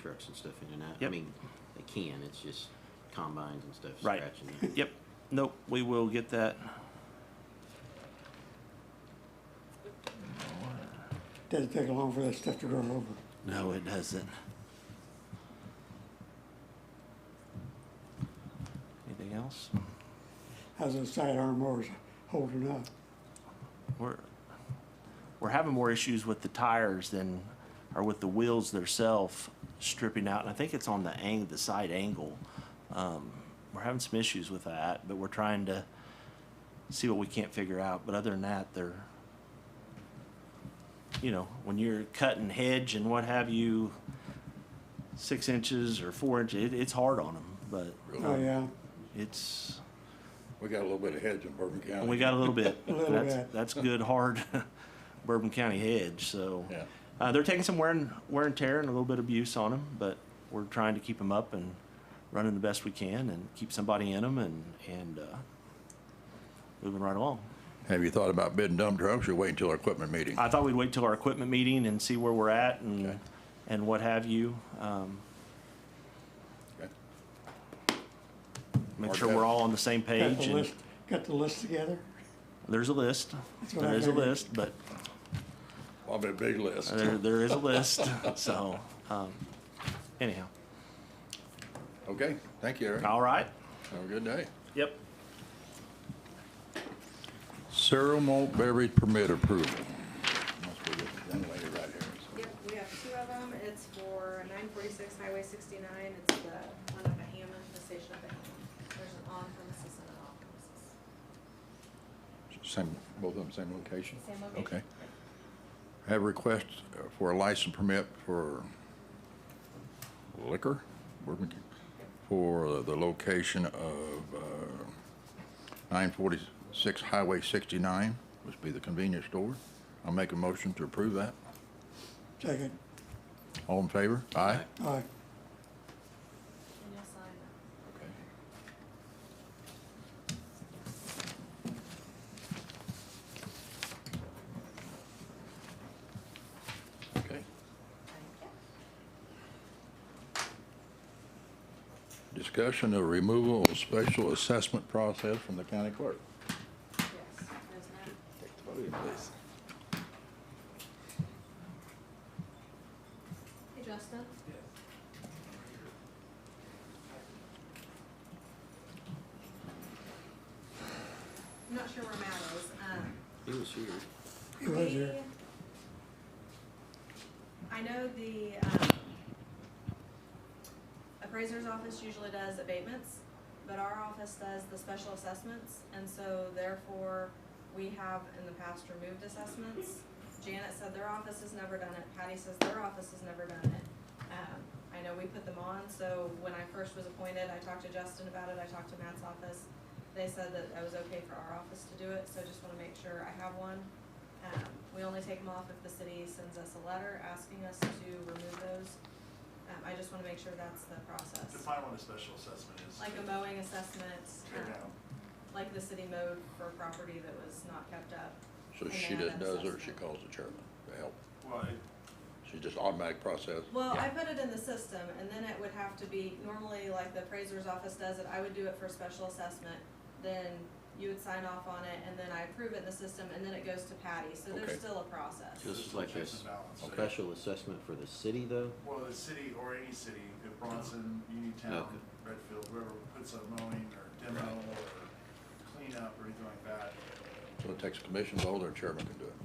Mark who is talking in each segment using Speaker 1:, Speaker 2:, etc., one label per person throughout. Speaker 1: trucks and stuff in and out. I
Speaker 2: Yep.
Speaker 1: mean, they can, it's just combines and stuff
Speaker 2: Right.
Speaker 1: scratching. it.
Speaker 2: Yep, nope, we will get that.
Speaker 3: Doesn't take long for that stuff to grow over.
Speaker 2: No, it doesn't. Anything else?
Speaker 3: How's those sidearm mowers holding up?
Speaker 2: We're, we're having more issues with the tires than, or with the wheels themselves stripping out, and I think it's on the ang, the side angle. Um, We're having some issues with that, but we're trying to see what we can't figure out, but other than that, they're, you know, when you're cutting hedge and what have you, six inches or four inches, it, it's hard on them, but um,
Speaker 3: Oh, yeah,
Speaker 2: it's,
Speaker 4: We got a little bit of hedge in Bourbon County.
Speaker 2: and we got a little bit.
Speaker 3: A little
Speaker 2: That's-
Speaker 3: bit.
Speaker 2: That's good, hard Bourbon County hedge, so.
Speaker 4: Yeah.
Speaker 2: Uh, they're taking some wear and, wear and tear and a little bit of abuse on them, but we're trying to keep them up and running the best we can and keep somebody in them and, and, uh, moving right along.
Speaker 4: Have you thought about bidding dump trucks or wait until our equipment meeting?
Speaker 2: I thought we'd wait till our equipment meeting and see where we're at and,
Speaker 4: Okay.
Speaker 2: and what have you. Um,
Speaker 4: Okay.
Speaker 2: make
Speaker 4: Mark
Speaker 2: sure
Speaker 4: that.
Speaker 2: we're all on the same
Speaker 3: got
Speaker 2: page
Speaker 3: the
Speaker 2: and
Speaker 3: list, got the list together?
Speaker 2: there's a list.
Speaker 3: what I
Speaker 2: There is a
Speaker 3: figured.
Speaker 2: list, but
Speaker 4: Probably a big list.
Speaker 2: there, there is a list, so, um, anyhow.
Speaker 4: Okay, thank you, Eric.
Speaker 2: All right.
Speaker 4: Have a good day.
Speaker 2: Yep.
Speaker 4: Cereal malt beverage permit approval. Must be this young lady right here.
Speaker 5: Yep, we have two of them. It's for nine forty-six Highway sixty-nine. It's the one up at Hammond, the station up at Hammond. There's an on premises and an off premises.
Speaker 4: Same, both of them same location?
Speaker 5: Same location.
Speaker 4: Okay. Have a request uh, for a license permit for liquor? Bourbon County, For the location of uh, nine forty-six Highway sixty-nine, which be the convenience store. I'll make a motion to approve that.
Speaker 3: Second,
Speaker 4: All in favor? Aye.
Speaker 3: all right,
Speaker 5: And you'll sign that.
Speaker 4: Okay. Okay. Discussion of removal of special assessment process from the county clerk.
Speaker 5: Yes, there's that.
Speaker 4: Take the podium, please.
Speaker 5: Hey, Justin. I'm not sure where Matt is. Um,
Speaker 1: He was here.
Speaker 3: he was here.
Speaker 5: I know the um, appraiser's office usually does abatements, but our office does the special assessments, and so therefore, we have in the past removed assessments. Janet said their office has never done it, Patty says their office has never done it. Um, I know we put them on, so when I first was appointed, I talked to Justin about it, I talked to Matt's office. They said that I was okay for our office to do it, so just wanna make sure I have one. Um, we only take them off if the city sends us a letter asking us to remove those. Um, I just wanna make sure that's the process.
Speaker 6: Define what a special assessment is.
Speaker 5: Like a mowing assessment,
Speaker 6: Tear
Speaker 5: um,
Speaker 6: down.
Speaker 5: like the city mowed for property that was not kept up.
Speaker 4: So
Speaker 5: And
Speaker 4: she just
Speaker 5: then
Speaker 4: does it, or she
Speaker 5: assessment.
Speaker 4: calls the chairman to help.
Speaker 6: Well, it-
Speaker 4: She's just automatic process.
Speaker 5: Well, I put it in the system, and then it would have to be, normally, like the appraiser's office does it, I would do it for special assessment. Then you would sign off on it, and then I approve it in the system, and then it goes to Patty, so
Speaker 4: Okay.
Speaker 5: there's still a process.
Speaker 1: This is like
Speaker 6: checks
Speaker 1: this
Speaker 6: and balances.
Speaker 1: special assessment for the city though?
Speaker 6: Well, the city or any city, if Bronson, Uniontown, Redfield, whoever puts a mowing or demo or cleanup or anything like that,
Speaker 4: So it takes a commission vote, or chairman can do it.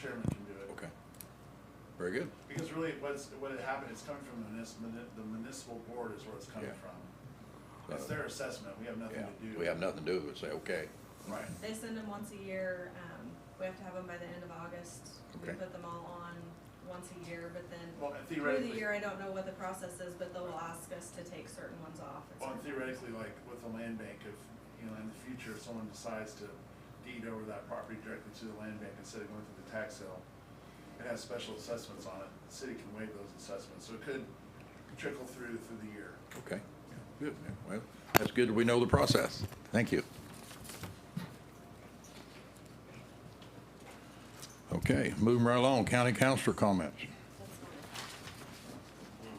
Speaker 6: chairman can do it.
Speaker 4: Okay. Very good.
Speaker 6: Because really, what's, what had happened, it's coming from the municipal, the municipal board is where it's coming
Speaker 4: Yeah.
Speaker 6: from.
Speaker 4: So,
Speaker 6: It's their assessment, we have nothing
Speaker 4: Yeah,
Speaker 6: to do.
Speaker 4: we have nothing to do with it, say, okay.
Speaker 6: Right,
Speaker 5: They send them once a year, um, we have to have them by the end of August. We
Speaker 4: Okay.
Speaker 5: put them all on once a year, but then
Speaker 6: well, and
Speaker 5: through the
Speaker 6: theoretically,
Speaker 5: year, I don't know what the process is, but they'll ask us to take certain ones off. and
Speaker 6: well,
Speaker 5: certain-
Speaker 6: and theoretically, like with the land bank, if, you know, in the future, if someone decides to deed over that property directly to the land bank instead of going through the tax sale, it has special assessments on it, the city can waive those assessments, so it could trickle through through the year.
Speaker 4: Okay, good, yeah, well, that's good, that we know the process, thank you. Okay, moving right along, county councilor comments.